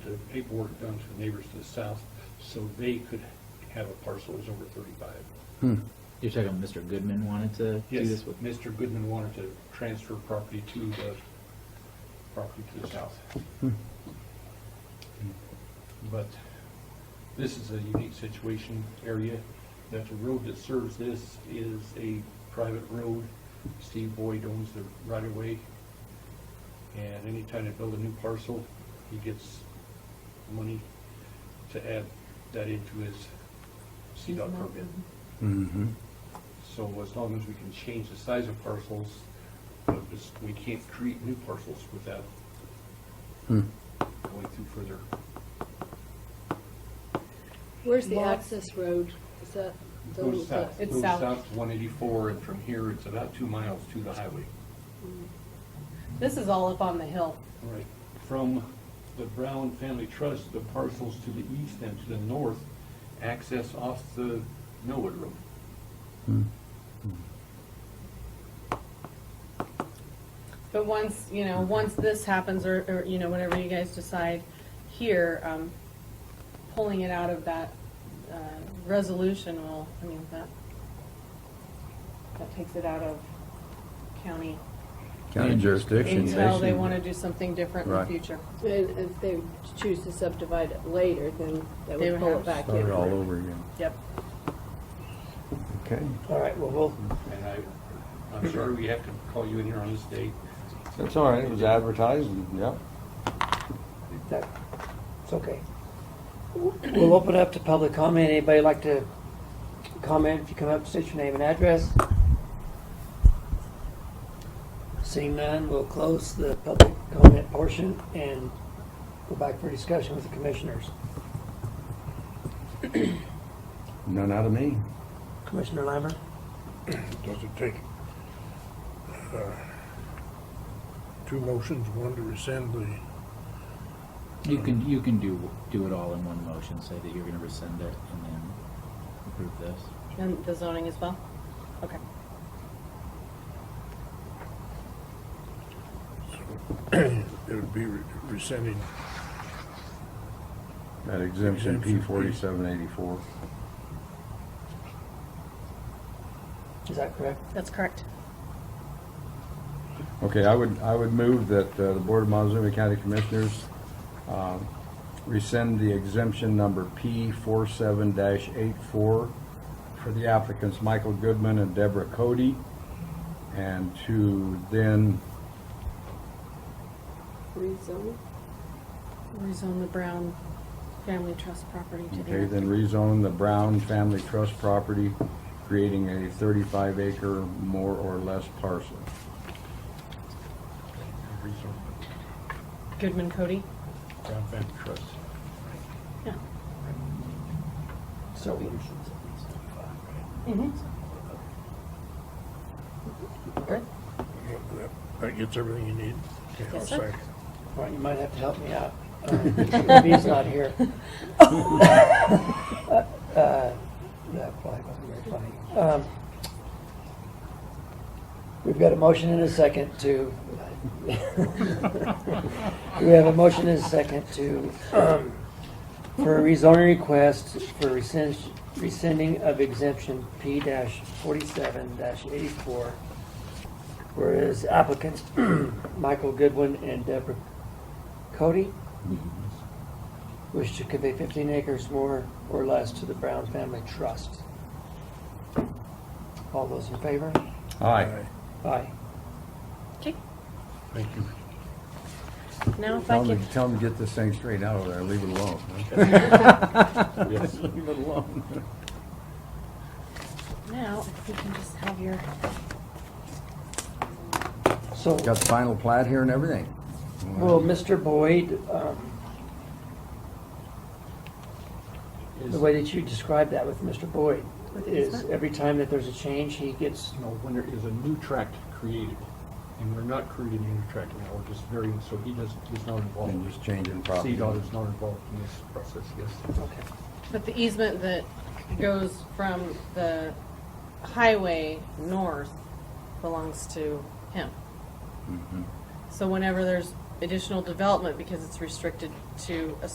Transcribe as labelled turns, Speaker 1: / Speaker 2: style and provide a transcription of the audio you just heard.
Speaker 1: the paperwork done to the neighbors to the south, so they could have a parcel that was over thirty-five.
Speaker 2: You're talking Mr. Goodman wanted to do
Speaker 1: Yes,
Speaker 2: this with?
Speaker 1: Mr. Goodman wanted to transfer property to the, property to the south. But this is a unique situation area, that the road that serves this is a private road. Steve Boyd owns the right of way. And anytime they build a new parcel, he gets money to add that into his CDOT permit.
Speaker 3: Mm-hmm.
Speaker 1: So as long as we can change the size of parcels, but just- we can't create new parcels without
Speaker 4: Hmm.
Speaker 1: going through further.
Speaker 5: Where's the
Speaker 6: Lot.
Speaker 5: access road? Is that the?
Speaker 1: Goes south,
Speaker 5: the-
Speaker 6: It's
Speaker 1: goes
Speaker 6: south.
Speaker 1: south to 184, and from here, it's about two miles to the highway.
Speaker 6: This is all up on the hill.
Speaker 1: Right. From the Brown Family Trust, the parcels to the east and to the north access off the Millwood Road.
Speaker 6: But once, you know, once this happens, or, or, you know, whenever you guys decide here, um, pulling it out of that, uh, resolution will, I mean, that, that takes it out of county
Speaker 3: County jurisdiction,
Speaker 6: until they
Speaker 3: basically.
Speaker 6: wanna do something different in the
Speaker 3: Right.
Speaker 6: future.
Speaker 5: And if they choose to subdivide it later, then they
Speaker 6: They would
Speaker 5: would pull
Speaker 6: have
Speaker 5: it
Speaker 6: to
Speaker 5: back
Speaker 3: Start it
Speaker 5: in.
Speaker 3: all over again.
Speaker 6: Yep.
Speaker 3: Okay.
Speaker 4: All right, well, we'll-
Speaker 1: And I, I'm sorry we have to call you in here on this date.
Speaker 7: That's all right, it was advertised, and, yeah.
Speaker 4: that, it's okay. We'll open up to public comment. Anybody like to comment? If you come up, state your name and address. Seeing none, we'll close the public comment portion and go back for discussion with the commissioners.
Speaker 3: None out of me.
Speaker 4: Commissioner Lambert?
Speaker 8: Doesn't take uh, two motions, one to rescind the,
Speaker 2: You can, you can do, do it all in one motion, say that you're gonna rescind it and then approve this.
Speaker 6: And the zoning as well? Okay.
Speaker 8: it would be re- rescinding
Speaker 3: That exemption P
Speaker 8: Exemption P.
Speaker 3: forty-seven eighty-four.
Speaker 4: Is that correct?
Speaker 6: That's correct.
Speaker 3: Okay, I would, I would move that uh, the Board of Montezuma County Commissioners uh, rescind the exemption number P four-seven dash eight-four for the applicants Michael Goodman and Deborah Cody, and to then
Speaker 5: Rezone?
Speaker 6: Rezone the Brown Family Trust property to
Speaker 3: Okay,
Speaker 6: Eric.
Speaker 3: then rezone the Brown Family Trust property, creating a thirty-five acre more or less parcel.
Speaker 6: Goodman Cody?
Speaker 1: Brown Family Trust.
Speaker 6: Yeah.
Speaker 4: So we-
Speaker 6: Mm-hmm.
Speaker 8: that- That gets everything you need. Okay, I'll
Speaker 6: Yes, sir.
Speaker 8: second.
Speaker 4: all right, you might have to help me out. Uh, He's not here. Uh, That probably wasn't very funny. Um, We've got a motion and a second to, we have a motion and a second to, um, for a rezoning request for rescind- rescinding of exemption P forty-seven eighty-four. Whereas applicants Michael Goodwin and Deborah Cody wish to convey 15 acres more or less to the Brown Family Trust. All those in favor?
Speaker 3: Aye.
Speaker 4: Aye.
Speaker 6: Okay,
Speaker 1: Thank you.
Speaker 6: now if I
Speaker 3: Tell
Speaker 6: could,
Speaker 3: them, tell them to get this thing straight out of there, leave it alone.
Speaker 1: Yes.
Speaker 3: Leave it alone.
Speaker 6: now if we can just have your,
Speaker 4: So,
Speaker 3: Got the final plat here and everything.
Speaker 4: well, Mr. Boyd, um,
Speaker 1: Is-
Speaker 4: the way that you described that with Mr. Boyd
Speaker 6: With the
Speaker 4: is
Speaker 6: easement?
Speaker 4: every time that there's a change, he gets,
Speaker 1: you know, when there is a new tract created, and we're not creating a new tract now, we're just varying, so he doesn't, he's not involved.
Speaker 3: And just changing property.
Speaker 1: CDOT is not involved in this process, yes.
Speaker 4: okay.
Speaker 6: but the easement that goes from the highway north belongs to him.
Speaker 3: Mm-hmm.
Speaker 6: So whenever there's additional development, because it's restricted to a